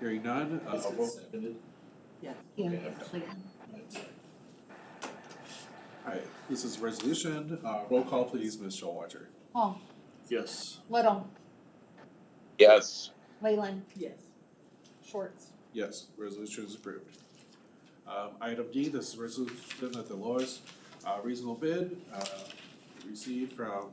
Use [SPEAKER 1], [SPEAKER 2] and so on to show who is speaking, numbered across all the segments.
[SPEAKER 1] Hearing none, uh,
[SPEAKER 2] Is it
[SPEAKER 1] roll-
[SPEAKER 2] seconded?
[SPEAKER 3] Yes.
[SPEAKER 2] Yeah.
[SPEAKER 3] Like,
[SPEAKER 1] alright, this is resolution, uh, roll call please, Ms. Showalter.
[SPEAKER 4] Hall,
[SPEAKER 1] Yes.
[SPEAKER 4] oh, Little,
[SPEAKER 5] yes,
[SPEAKER 4] Leyland,
[SPEAKER 3] Yes.
[SPEAKER 4] Schwartz.
[SPEAKER 1] Yes, resolution is approved. Um, item D, this is resolution that the lowest, uh, reasonable bid, uh, received from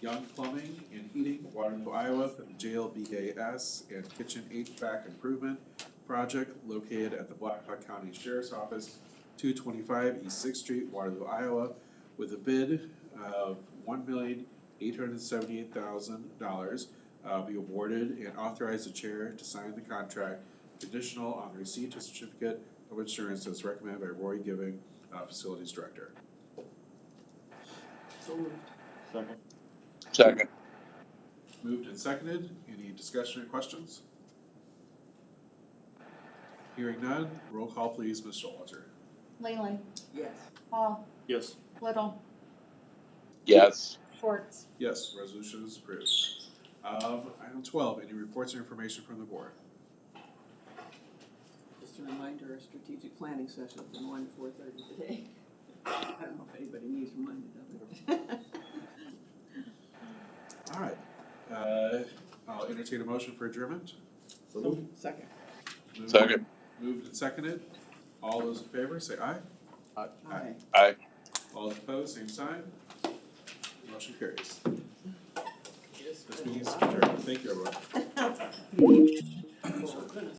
[SPEAKER 1] Young Plumbing and Heating, Waterloo, Iowa, for the JLBAS and Kitchen HVAC Improvement Project located at the Blackhawk County Sheriff's Office, two twenty-five East Sixth Street, Waterloo, Iowa, with a bid of one million, eight hundred and seventy-eight thousand dollars, uh, be awarded and authorize the chair to sign the contract conditional on the receipt of certificate of insurance as recommended by Roy Giving, uh, Facilities Director.
[SPEAKER 3] So moved.
[SPEAKER 2] Second.
[SPEAKER 5] second,
[SPEAKER 1] Moved and seconded, any discussion or questions? Hearing none, roll call please, Ms. Showalter.
[SPEAKER 4] Leyland,
[SPEAKER 3] Yes.
[SPEAKER 4] Hall,
[SPEAKER 2] Yes.
[SPEAKER 4] Little,
[SPEAKER 5] yes,
[SPEAKER 4] Schwartz.
[SPEAKER 1] Yes, resolution is approved. Um, item twelve, any reports or information from the board?
[SPEAKER 3] Just a reminder, our strategic planning session from one to four thirty today. I don't know if anybody needs reminded of it.
[SPEAKER 1] Alright, uh, I'll entertain a motion for adjournment.
[SPEAKER 2] So moved.
[SPEAKER 3] Second.
[SPEAKER 1] Moved-
[SPEAKER 5] second,
[SPEAKER 1] Moved and seconded, all those in favor say aye.
[SPEAKER 3] Aye.
[SPEAKER 5] aye.
[SPEAKER 1] All opposed, same sign. Motion carries. This meeting is adjourned. Thank you, everyone.
[SPEAKER 3] Oh, goodness.